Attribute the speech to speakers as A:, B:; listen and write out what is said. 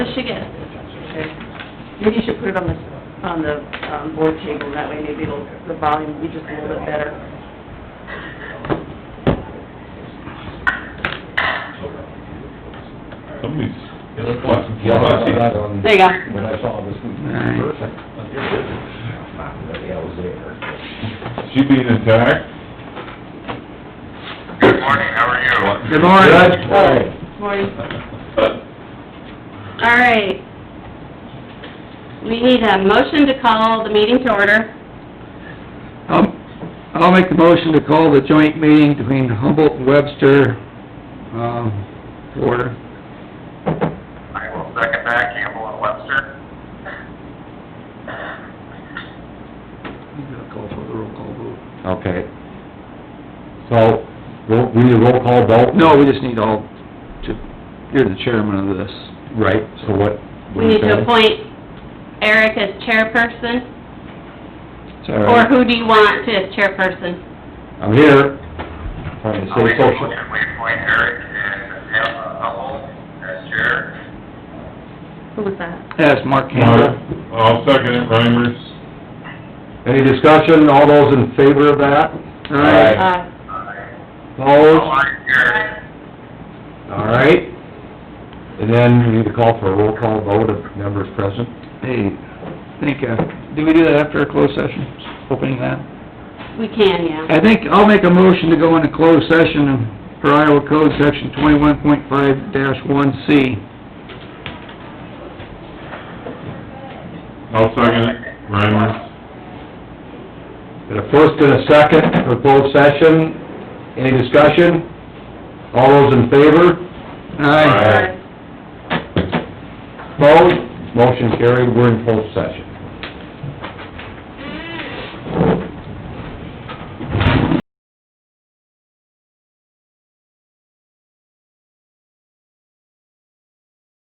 A: Maybe you should put it on the, on the, um, board table, that way maybe it'll, the volume will be just a little bit better.
B: Somebody's.
C: It looked like some yellow outside on,
A: There you go.
C: when I saw this one.
D: Nice.
C: Perfect. Not that I was there.
B: She being attacked?
E: Good morning, how are you?
D: Good morning.
C: Right.
A: Morning. All right. We need um, a motion to call the meeting to order.
D: I'll, I'll make the motion to call the joint meeting between Humboldt and Webster, um, to order.
E: I will second that, Campbell and Webster.
D: You gotta call for the roll call vote.
C: Okay. So, ro- we need a roll call vote?
D: No, we just need all to, you're the chairman of this.
C: Right, so what?
A: We need to appoint Eric as chairperson,
D: Sorry.
A: or who do you want to as chairperson?
C: I'm here, trying to
E: I'll
C: stay
E: make a
C: social.
E: motion, we appoint Eric and Pamela Hubble as chair.
A: Who was that?
D: That's
B: Mark,
D: Mark Campbell.
B: I'll second it, Reimers.
C: Any discussion, all those in favor of that?
D: Aye.
A: Uh,
E: Aye.
C: Opposed?
E: All in here.
C: All right. And then we need to call for a roll call vote of members present.
D: Hey, think, uh, do we do that after a closed session, opening that?
A: we can, yeah.
D: I think I'll make a motion to go into closed session for Iowa Code Section twenty-one point five one C.
B: I'll second it, Reimers.
C: And a first and a second for closed session. Any discussion? All those in favor?
D: Aye.
C: Opposed? Motion carried, we're in closed session.